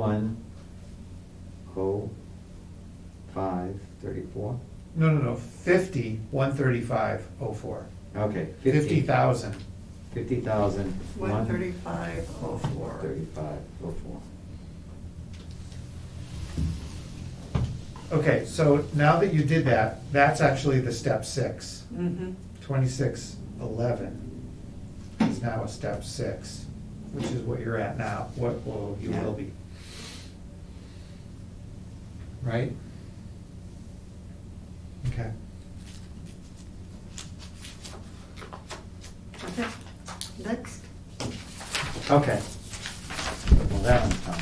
One, oh, five, thirty-four? No, no, no, fifty, one thirty-five, oh four. Okay. Fifty thousand. Fifty thousand. One thirty-five oh four. Thirty-five, oh, four. Okay, so now that you did that, that's actually the step six. Mm-hmm, Twenty-six eleven is now a step six, which is what you're at now, what will, you will be. Right? Okay. okay, next. Okay. Well, that one's done.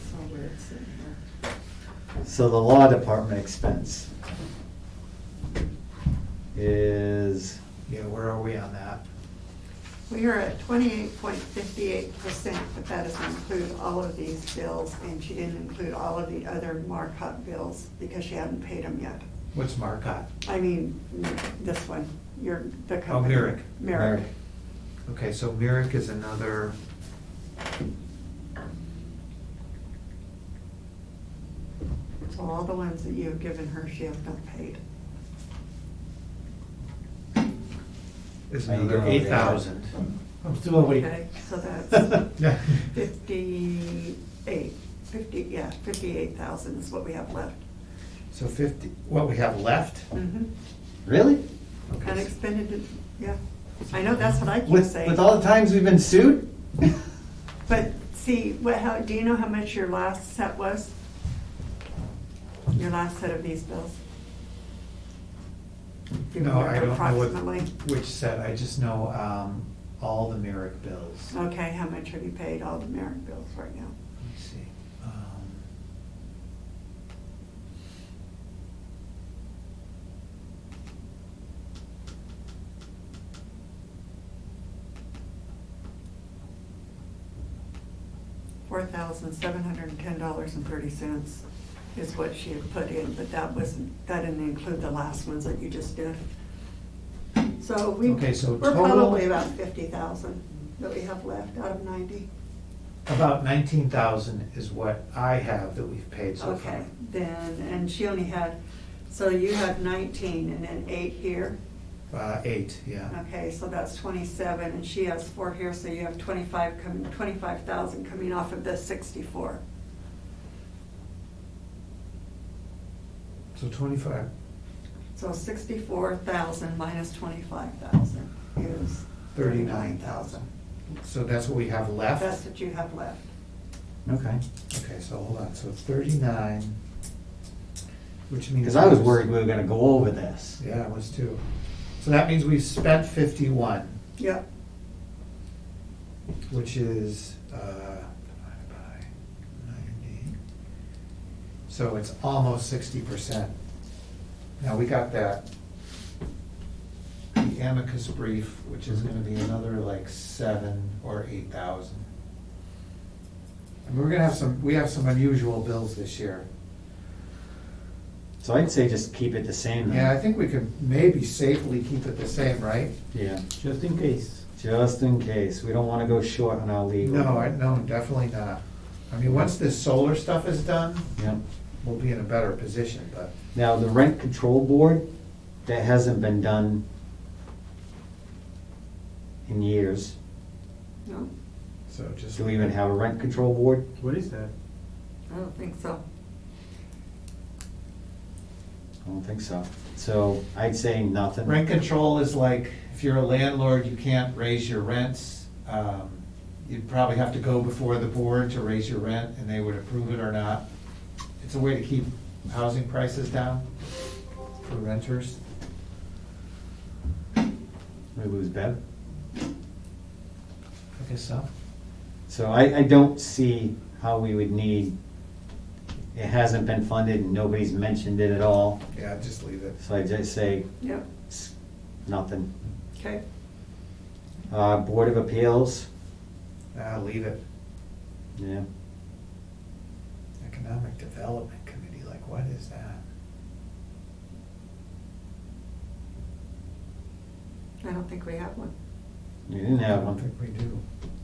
So we're sitting here. So the law department expense is, Yeah, where are we on that? We are at twenty-eight point fifty-eight percent, but that doesn't include all of these bills, and she didn't include all of the other markup bills, because she hadn't paid them yet. What's Marcotte? I mean, this one, your, the Oh, company. Merrick. Merrick. Merrick. Okay, so Merrick is another. So all the ones that you have given her, she has not paid. is Are you another going eight over thousand. I'm still awake. Okay, so that's fifty-eight, fifty, yeah, fifty-eight thousand is what we have left. So fifty, what we have left? Mhm. Really? Mm-hmm. Okay, Unexpended, yeah, I know, that's what I keep With, saying. with all the times we've been sued? But see, what, how, do you know how much your last set was? Your last set of these bills? Do you No, I remember don't know Approximately, what, which set, I just know, um, all the Merrick bills. Let's okay, how much have you paid all the merit bills right now? see. um, Four thousand seven hundred and ten dollars and thirty cents is what she had put in, but that wasn't, that didn't include the last ones that you just did. So we, Okay, so we're total- probably about fifty thousand that we have left out of ninety. About nineteen thousand is what I have that we've paid so far. Okay, then, and she only had, so you had nineteen and then eight here. Uh, eight, yeah. Okay, so that's twenty-seven, and she has four here, so you have twenty-five, com- twenty-five thousand coming off of the sixty-four. So twenty-five, So sixty-four thousand minus twenty-five thousand is thirty-nine thirty-nine thousand. thousand. So that's what we have left? That's what you have left. Okay. Okay, so hold on, so thirty-nine, which means. Because I was worried we were gonna go over this. Yeah, I was too. So that means we've spent fifty-one, Yep, which is, uh, divided by ninety. So it's almost sixty percent. Now, we got that, the amicus brief, which is gonna be another like seven or eight thousand. And we're gonna have some, we have some unusual bills this year. So I'd say just keep it the same. then. Yeah, I think we could maybe safely keep it the same, right? Yeah, Just in case. just in case. We don't wanna go short on our legal. No, I, no, definitely not. I mean, once this solar stuff is done, Yeah. we'll be in a better position, but, Now, the rent control board, that hasn't been done in years. no, so just. Do we even have a rent control board? What is that? I don't think so. I don't think so. So I'd say nothing. Rent control is like, if you're a landlord, you can't raise your rents. Um, You'd probably have to go before the board to raise your rent, and they would approve it or not. It's a way to keep housing prices down for renters. We lose Bev. I guess so. So I, I don't see how we would need, it hasn't been funded and nobody's mentioned it at all. Yeah, just leave it. So I just say, Yep, s- nothing. okay, Uh, Board of Appeals, Ah, leave it. yeah. Economic Development Committee, like what is that? I don't think we have one. You didn't I have don't one. think we do.